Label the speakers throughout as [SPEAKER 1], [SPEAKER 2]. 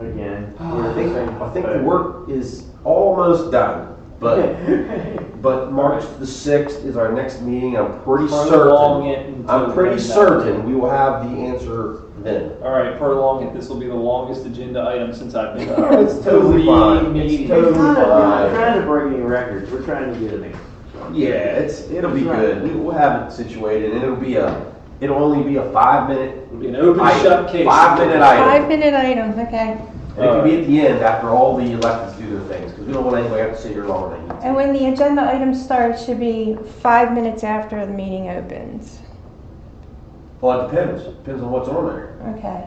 [SPEAKER 1] again.
[SPEAKER 2] Ah, I think, I think the work is almost done, but,
[SPEAKER 1] But
[SPEAKER 2] but March the sixth is our next meeting, I'm pretty
[SPEAKER 3] Prolong
[SPEAKER 2] certain.
[SPEAKER 3] it until
[SPEAKER 2] I'm pretty
[SPEAKER 3] we know.
[SPEAKER 2] certain we will have the answer then.
[SPEAKER 3] All right, prolong it. This will be the longest agenda item since I've been.
[SPEAKER 2] It's totally fine.
[SPEAKER 3] Three
[SPEAKER 2] It's
[SPEAKER 3] meetings.
[SPEAKER 2] totally
[SPEAKER 1] It's not a-
[SPEAKER 2] fine.
[SPEAKER 1] we're not trying to break any records, we're trying to get an answer. so.
[SPEAKER 2] Yeah, it's, it'll be
[SPEAKER 1] That's right.
[SPEAKER 2] good, we will have it situated, and it'll be a, it'll only be a five minute,
[SPEAKER 3] It'll be an open
[SPEAKER 2] Item.
[SPEAKER 3] shut case.
[SPEAKER 2] Five-minute item.
[SPEAKER 4] Five minute items, okay.
[SPEAKER 2] and it can be at the end after all the electeds do their things, because we don't want anybody to have to sit here longer than
[SPEAKER 4] And when the agenda item starts, should be five minutes after the meeting opens.
[SPEAKER 2] Well, it depends, depends on what's on there.
[SPEAKER 4] Okay.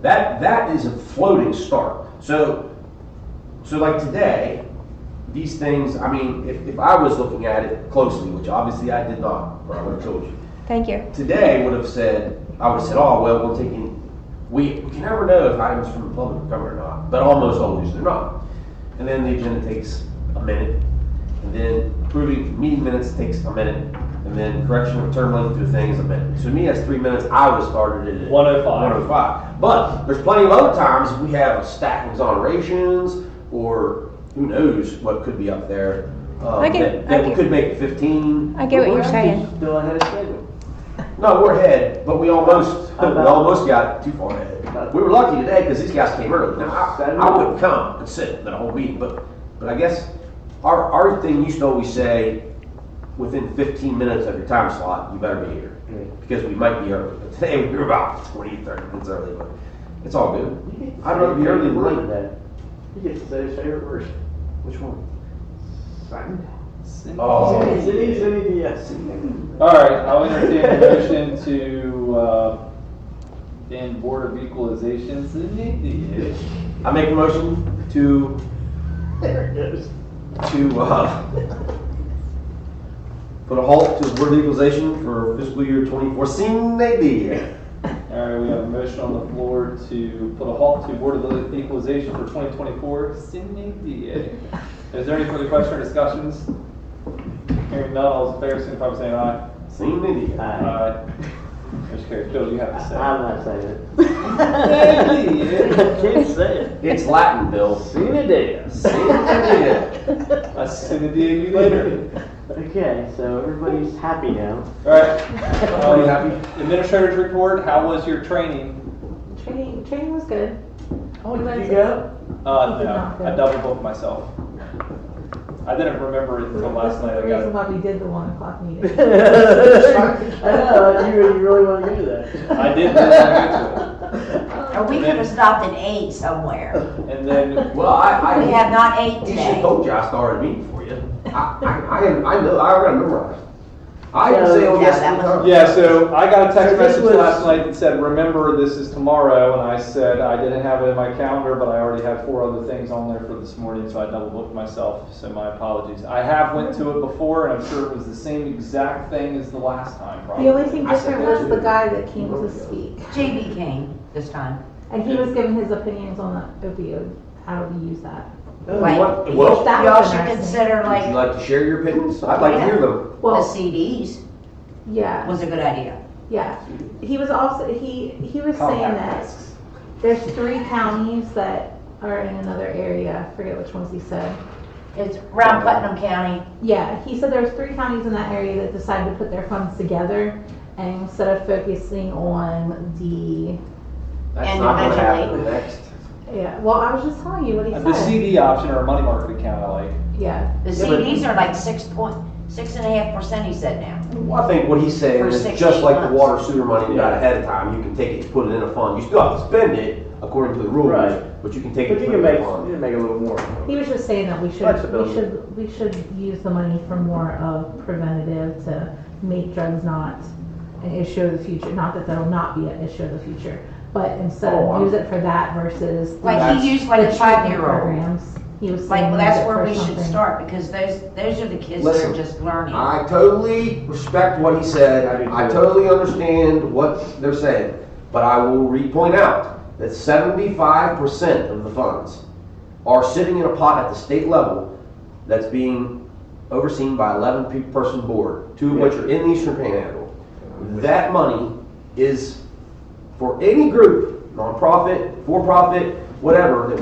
[SPEAKER 2] That that is a floating start. So so like today, these things, I mean, if, if I was looking at it closely, which obviously I did not, or I would have told you.
[SPEAKER 4] Thank you.
[SPEAKER 2] Today would have said I would have said, Oh well we're taking we, we can never know if items from the public are coming or not, but almost always they're not. And then the agenda takes a minute, and then approving meeting minutes takes a minute, and then correction of term length through thing is a minute. So to me that's three minutes. I would have started it at
[SPEAKER 3] 105.
[SPEAKER 2] 105. But there's plenty of other times we have a stack of exonerations or who knows what could be up there. Um,
[SPEAKER 4] I get-
[SPEAKER 2] that, that
[SPEAKER 4] I
[SPEAKER 2] we
[SPEAKER 4] get-
[SPEAKER 2] could make 15.
[SPEAKER 4] I get what
[SPEAKER 1] We're
[SPEAKER 4] you're saying.
[SPEAKER 1] actually Still ahead of schedule.
[SPEAKER 2] No, we're ahead, but we almost we
[SPEAKER 1] About-
[SPEAKER 2] almost got too far ahead. We were lucky today because these guys came early. Now I, I wouldn't come and sit the whole meeting, but but I guess our our thing used to always say within 15 minutes of your time slot you better be here because we might be early. But today we were about 20, 30 minutes early, but it's all good. I'd rather be early than late.
[SPEAKER 1] that. He gets to say his favorite word. Which one? Sunday.
[SPEAKER 2] Oh.
[SPEAKER 1] Is it easy? Yes.
[SPEAKER 3] All right, I'll entertain a motion to uh, end Board of Equalization's initiative.
[SPEAKER 2] I make a motion to
[SPEAKER 1] There it is.
[SPEAKER 2] to uh, put a halt to board legalization for fiscal year 24. Seen maybe.
[SPEAKER 3] All right, we have a motion on the floor to put a halt to Board of Equalization for 2024. Sydney DA. Is there any further question or discussions? Hearing none, all those in favor, signify by saying aye.
[SPEAKER 2] Seen maybe.
[SPEAKER 1] Aye.
[SPEAKER 3] Aye. Motion carries. Joe, you have to
[SPEAKER 1] I'm
[SPEAKER 3] say.
[SPEAKER 1] not saying it.
[SPEAKER 3] Sunday.
[SPEAKER 1] I can't say it.
[SPEAKER 2] It's Latin, Bill.
[SPEAKER 1] Sina Diaz.
[SPEAKER 3] I see the DA you later.
[SPEAKER 1] Okay, so everybody's happy now.
[SPEAKER 3] All right, Um,
[SPEAKER 2] Are Oh, you happy?
[SPEAKER 3] administrators report, how was your training?
[SPEAKER 5] Training, training was good.
[SPEAKER 1] Oh,
[SPEAKER 5] did you
[SPEAKER 1] go?
[SPEAKER 3] Uh,
[SPEAKER 5] Did
[SPEAKER 3] no,
[SPEAKER 5] not go.
[SPEAKER 3] I double booked myself. I didn't remember it until last night.
[SPEAKER 5] That's
[SPEAKER 3] I
[SPEAKER 5] the
[SPEAKER 3] got
[SPEAKER 5] reason why we did the one o'clock
[SPEAKER 1] I
[SPEAKER 5] meeting.
[SPEAKER 1] know, you really, you really want to do that.
[SPEAKER 3] I did really want
[SPEAKER 6] Or we could have stopped at eight somewhere.
[SPEAKER 3] And then,
[SPEAKER 2] Well, I, I
[SPEAKER 6] We have not ate
[SPEAKER 2] You should have
[SPEAKER 6] today.
[SPEAKER 2] told you I started meeting for you. I, I, I, I know. I gotta memorize. I can say oh
[SPEAKER 6] Yeah,
[SPEAKER 2] yes.
[SPEAKER 6] that
[SPEAKER 2] three times.
[SPEAKER 3] yeah, so I got a
[SPEAKER 1] So
[SPEAKER 3] text
[SPEAKER 1] this
[SPEAKER 3] message
[SPEAKER 1] was-
[SPEAKER 3] last night that said, remember, this is tomorrow, and I said, I didn't have it in my calendar, but I already had four other things on there for this morning, so I double booked myself, so my apologies. I have went to it before, and I'm sure it was the same exact thing as the last time, probably.
[SPEAKER 5] The only thing
[SPEAKER 2] I said
[SPEAKER 5] different
[SPEAKER 2] that
[SPEAKER 5] was the
[SPEAKER 2] too.
[SPEAKER 5] guy that came to speak,
[SPEAKER 6] JB came this time.
[SPEAKER 5] and he was giving his opinions on the opioid, how do we use that.
[SPEAKER 6] Right.
[SPEAKER 2] What, well,
[SPEAKER 5] That
[SPEAKER 6] Y'all
[SPEAKER 5] was
[SPEAKER 6] should
[SPEAKER 5] interesting.
[SPEAKER 6] consider
[SPEAKER 2] would you
[SPEAKER 6] like
[SPEAKER 2] like to share your opinions? I'd like to hear them.
[SPEAKER 6] the
[SPEAKER 5] Well,
[SPEAKER 6] CDs
[SPEAKER 5] yeah,
[SPEAKER 6] was a good idea.
[SPEAKER 5] yeah. He was also, he, he was saying that
[SPEAKER 3] Compacts.
[SPEAKER 5] there's three counties that are in another area, I forget which ones he said.
[SPEAKER 6] It's around Putnam County.
[SPEAKER 5] Yeah, he said there's three counties in that area that decided to put their funds together, and instead of focusing on the,
[SPEAKER 2] That's
[SPEAKER 6] And
[SPEAKER 2] not gonna happen
[SPEAKER 6] eventually-
[SPEAKER 2] next.
[SPEAKER 5] yeah, well, I was just telling you what he
[SPEAKER 3] The
[SPEAKER 5] said.
[SPEAKER 3] CD option or a money market account, I like.
[SPEAKER 5] Yeah,
[SPEAKER 6] The
[SPEAKER 2] Yeah, but-
[SPEAKER 6] CDs are like six point, six and a half percent, he said now.
[SPEAKER 2] Well, I think what he's saying
[SPEAKER 6] For
[SPEAKER 2] is
[SPEAKER 6] six,
[SPEAKER 2] just
[SPEAKER 6] eight
[SPEAKER 2] like the
[SPEAKER 6] months.
[SPEAKER 2] water sewer money we got
[SPEAKER 3] Yeah.
[SPEAKER 2] ahead of time, you can take it, put it in a fund. You still have to spend it according to the rules,
[SPEAKER 1] Right.
[SPEAKER 2] but you can take
[SPEAKER 1] But
[SPEAKER 2] it
[SPEAKER 1] you
[SPEAKER 2] and
[SPEAKER 1] can
[SPEAKER 2] put it
[SPEAKER 1] make,
[SPEAKER 2] in a
[SPEAKER 1] you
[SPEAKER 2] fund.
[SPEAKER 1] can make a little more.
[SPEAKER 5] he was just saying that we should,
[SPEAKER 1] Flexibility.
[SPEAKER 5] we should, we should use the money for more of preventative to make drugs not an issue of the future, not that that'll not be an issue of the future, but instead
[SPEAKER 2] Oh, I-
[SPEAKER 5] use it for that versus. the-
[SPEAKER 6] Like
[SPEAKER 2] That's-
[SPEAKER 6] he used like a
[SPEAKER 5] the treatment
[SPEAKER 6] five-year-old.
[SPEAKER 5] programs. He was
[SPEAKER 6] Like,
[SPEAKER 5] saying.
[SPEAKER 6] well, that's
[SPEAKER 5] use it
[SPEAKER 6] where
[SPEAKER 5] for
[SPEAKER 6] we should
[SPEAKER 5] something.
[SPEAKER 6] start because those, those are the kids that
[SPEAKER 2] Listen,
[SPEAKER 6] are just learning.
[SPEAKER 2] I totally respect what he
[SPEAKER 1] I
[SPEAKER 2] said.
[SPEAKER 1] do
[SPEAKER 2] I
[SPEAKER 1] too.
[SPEAKER 2] totally understand what they're saying, but I will re-point out that seventy-five percent of the funds are sitting in a pot at the state level that's being overseen by eleven-person board, two of which are in the Eastern Panhandle. That money is for any group, nonprofit, for-profit, whatever, that